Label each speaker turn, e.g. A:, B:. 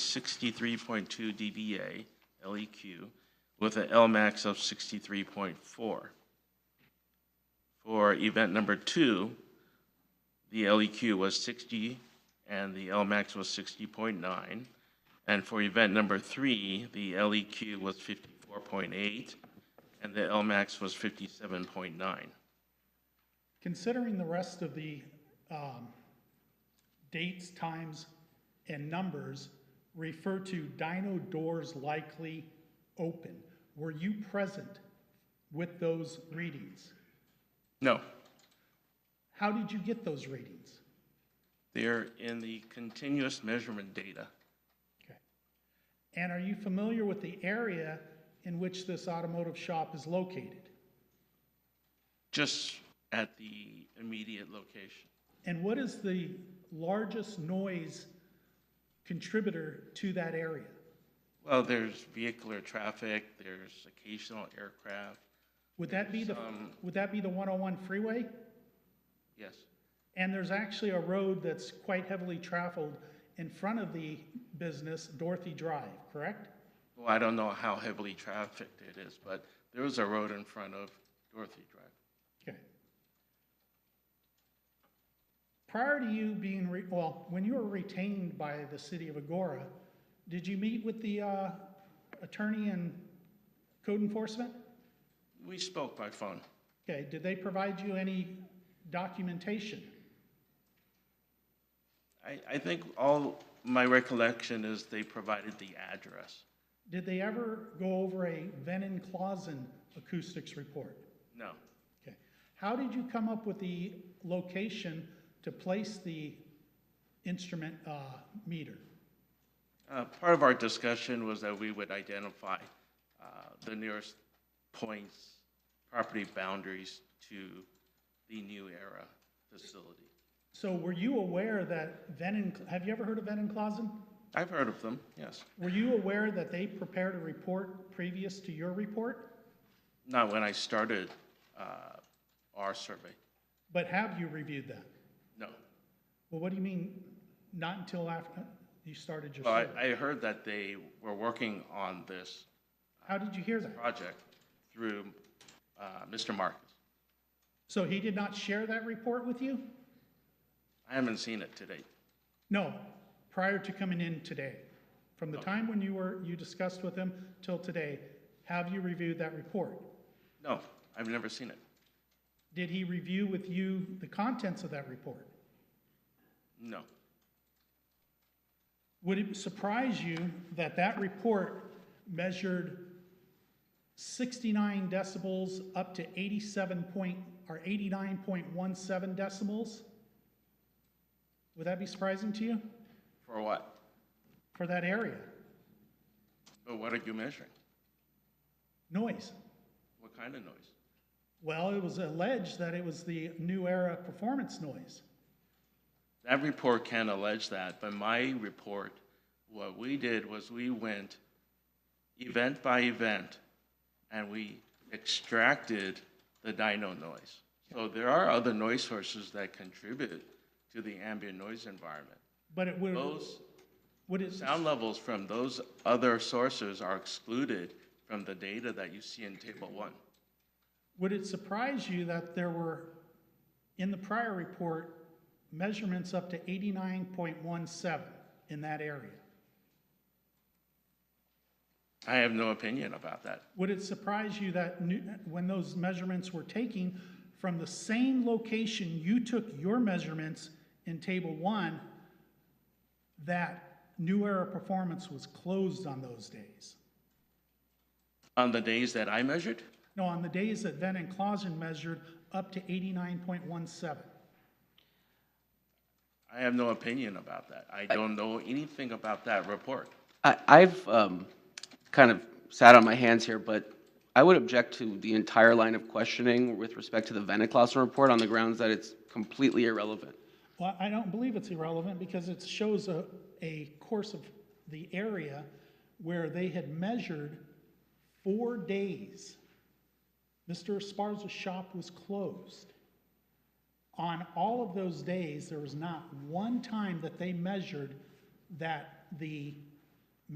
A: 63.2 dBA LEQ E with an LMAX of 63.4. For event number two, the LEQ was 60 and the LMAX was 60.9. And for event number three, the LEQ was 54.8 and the LMAX was 57.9.
B: Considering the rest of the um, dates, times, and numbers refer to dino doors likely open, were you present with those readings?
A: No,
B: How did you get those readings?
A: they're in the continuous measurement data.
B: Okay. And are you familiar with the area in which this automotive shop is located?
A: just at the immediate location.
B: And what is the largest noise contributor to that area?
A: Well, there's vehicular traffic, there's occasional aircraft,
B: Would that be the, would that be the 101 freeway?
A: yes.
B: And there's actually a road that's quite heavily traveled in front of the business, Dorothy Drive, correct?
A: Well, I don't know how heavily trafficked it is, but there is a road in front of Dorothy Drive.
B: Okay. Prior to you being, re- well, when you were retained by the city of Agora, did you meet with the uh, attorney and code enforcement?
A: We spoke by phone.
B: Okay, did they provide you any documentation?
A: I, I think all, my recollection is they provided the address.
B: Did they ever go over a Venon Clausen acoustics report?
A: No,
B: Okay. How did you come up with the location to place the instrument uh, meter?
A: Uh, Part of our discussion was that we would identify uh, the nearest points, property boundaries to the New Era facility.
B: So were you aware that Venon, have you ever heard of Venon Clausen?
A: I've heard of them, yes.
B: Were you aware that they prepared a report previous to your report?
A: Not when I started uh, our survey,
B: But have you reviewed that?
A: no.
B: Well, what do you mean, not until after uh, you started your
A: But
B: survey?
A: I heard that they were working on this
B: How did you hear that?
A: project through uh, Mr. Marcus.
B: So he did not share that report with you?
A: I haven't seen it to date.
B: No, prior to coming in today. From the time when you were, you discussed with him till today, have you reviewed that report?
A: No, I've never seen it.
B: Did he review with you the contents of that report?
A: No.
B: Would it surprise you that that report measured 69 decibels up to 87 point, or 89.17 decibels? Would that be surprising to you
A: For what?
B: for that area?
A: But what are you measuring?
B: Noise.
A: What kind of noise?
B: Well, it was alleged that it was the new era performance noise.
A: That report can allege that, but my report, what we did was we went event by event and we extracted the dyno noise. So there are other noise sources that contribute to the ambient noise environment.
B: But it would,
A: Those
B: would it,
A: sound levels from those other sources are excluded from the data that you see in table one.
B: would it surprise you that there were, in the prior report, measurements up to 89.17 in that area?
A: I have no opinion about that.
B: Would it surprise you that new, when those measurements were taken from the same location you took your measurements in table one, that new era performance was closed on those days?
A: On the days that I measured,
B: No, on the days that Venn and Clausen measured up to 89.17.
A: I have no opinion about that. I don't know anything about that report.
C: I, I've um, kind of sat on my hands here, but I would object to the entire line of questioning with respect to the Venaklassen report on the grounds that it's completely irrelevant.
B: Well, I don't believe it's irrelevant because it shows a, a course of the area where they had measured four days. Mr. Esparza's shop was closed. On all of those days, there was not one time that they measured that the